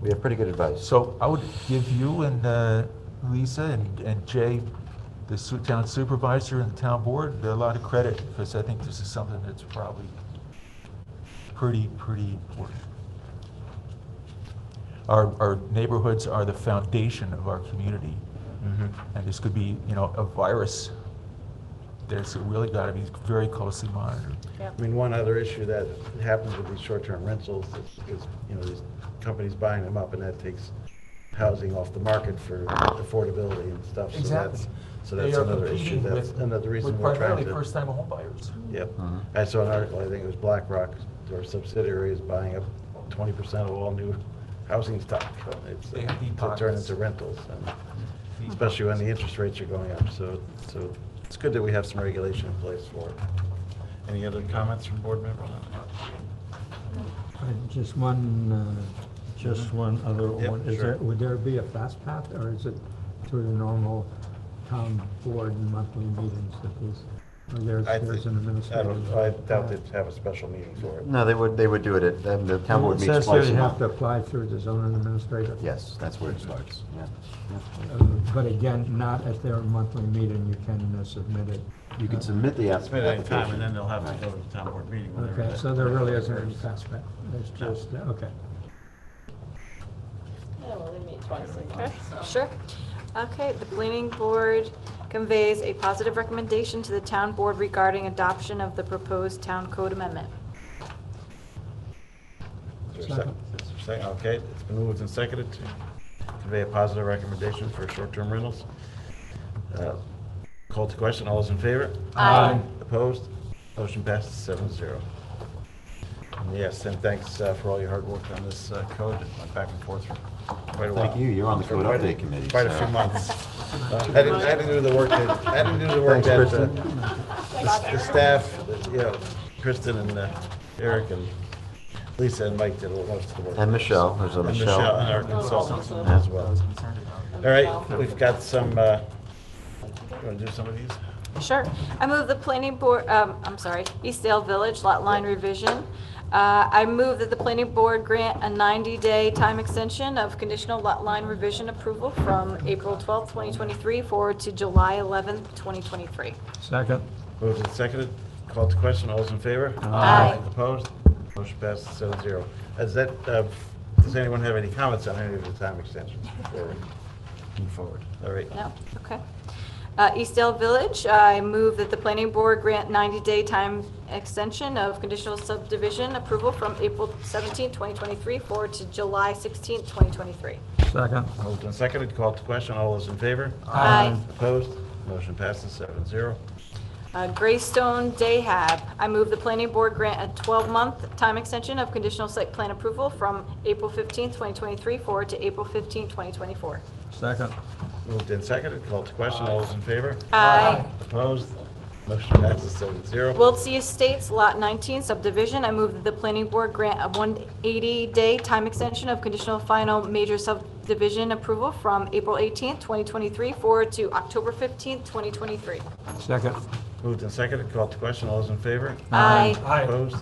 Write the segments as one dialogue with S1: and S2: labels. S1: We have pretty good advice.
S2: So I would give you and uh, Lisa and and Jay, the su- town supervisor and the town board, a lot of credit because I think this is something that's probably pretty, pretty important. Our, our neighborhoods are the foundation of our community. And this could be, you know, a virus that's really got to be very closely monitored.
S3: Yep.
S4: I mean, one other issue that happens with these short-term rentals is, is, you know, these companies buying them up, and that takes housing off the market for affordability and stuff. So that's- So that's
S2: They are
S4: another issue,
S2: competing
S4: that's
S2: with-
S4: another reason
S2: with
S4: we're trying
S2: Primarily
S4: to.
S2: first-time homebuyers.
S4: Yep.
S1: Mhm.
S4: I saw an article, I think it was BlackRock, their subsidiary is buying up twenty percent of all new housing stock. It's uh,
S2: They have deep
S4: To turn
S2: pockets.
S4: into rentals, and especially when the interest rates are going up, so, so it's good that we have some regulation in place for it. Any other comments from board members?
S5: Uh, Just one, uh, just one other
S4: Mm-hmm. Yep,
S5: one. Is
S4: sure.
S5: there, would there be a fast path, or is it through the normal town board monthly meetings that these, or there's,
S4: I think-
S5: there's an
S4: I don't-
S5: administrative?
S4: I doubt they'd have a special meeting for it.
S1: No, they would, they would do it at, then the town board
S5: It
S1: meets
S5: says
S1: twice
S5: here
S1: a
S5: you have to
S1: month.
S5: apply through the zoning administrator.
S1: Yes, that's where it starts, yeah.
S5: Uh, But again, not at their monthly meeting, you can uh, submit it.
S1: You can submit the app-
S4: It's made any
S1: application.
S4: time, and then they'll have to go to the town board meeting. whenever
S5: Okay,
S4: that-
S5: so there really isn't any fast path, it's just, uh, okay.
S3: Yeah, well, they meet twice a
S6: Okay,
S3: month, so.
S6: sure. Okay, the planning board conveys a positive recommendation to the town board regarding adoption of the proposed town code amendment.
S4: Is there a second? Is there a second? Okay, it's been moved and seconded to convey a positive recommendation for short-term rentals. Uh, Call to question, all those in favor?
S6: Aye.
S4: Opposed? Motion passes seven zero. Yes, and thanks uh, for all your hard work on this uh, code. It went back and forth for quite a while.
S1: Thank you, you're on the
S4: For
S1: code
S4: quite a-
S1: update committee,
S4: Quite a
S1: so-
S4: few months. Uh, I didn't, I didn't do the work that, I didn't do the work that,
S1: Thanks,
S4: uh,
S1: Kristen.
S4: the the staff, you know, Kristen and uh, Eric and Lisa and Mike did a lot of the work.
S1: And Michelle, there's a
S4: And
S1: Michelle.
S4: And our consultants as well. All right, we've got some, uh, you want to do some of these?
S6: Sure. I move the planning board, um, I'm sorry, Eastdale Village Lot Line Revision. Uh, I move that the planning board grant a 90-day time extension of conditional lot line revision approval from April 12th, 2023 forward to July 11th, 2023.
S5: Second.
S4: Moved and seconded, called to question, all those in favor?
S6: Aye.
S4: Opposed? Motion passes seven zero. Is that, uh, does anyone have any comments on any of the time extensions before we move forward? All right.
S6: No, okay. Uh, Eastdale Village, I move that the planning board grant 90-day time extension of conditional subdivision approval from April 17, 2023 forward to July 16, 2023.
S5: Second.
S4: Moved and seconded, called to question, all those in favor?
S6: Aye.
S4: Opposed? Motion passes seven zero.
S6: Uh, Greystone Dayhab, I move the planning board grant a 12-month time extension of conditional site plan approval from April 15, 2023 forward to April 15, 2024.
S5: Second.
S4: Moved and seconded, called to question, all those in favor?
S6: Aye.
S4: Opposed? Motion passes seven zero.
S6: Wiltse Estates Lot 19 subdivision, I move that the planning board grant a 180-day time extension of conditional final major subdivision approval from April 18th, 2023 forward to October 15th, 2023.
S5: Second.
S4: Moved and seconded, called to question, all those in favor?
S6: Aye.
S4: Opposed?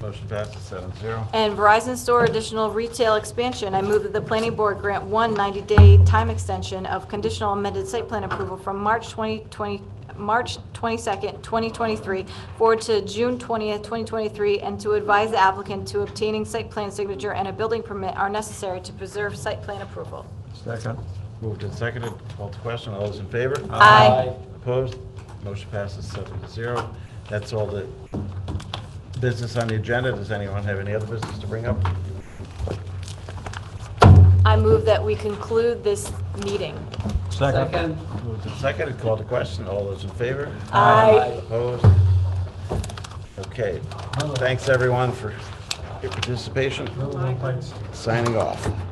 S4: Motion passes seven zero.
S6: And Verizon Store additional retail expansion, I move that the planning board grant one 90-day time extension of conditional amended site plan approval from March 2020, March 22nd, 2023, forward to June 20th, 2023, and to advise the applicant to obtaining site plan signature and a building permit are necessary to preserve site plan approval.
S5: Second.
S4: Moved and seconded, called to question, all those in favor?
S6: Aye.
S4: Opposed? Motion passes seven to zero. That's all the business on the agenda. Does anyone have any other business to bring up?
S6: I move that we conclude this meeting.
S5: Second.
S4: Moved and seconded, called to question, all those in favor?
S6: Aye.
S4: Opposed? Okay. Thanks, everyone, for your participation. Signing off.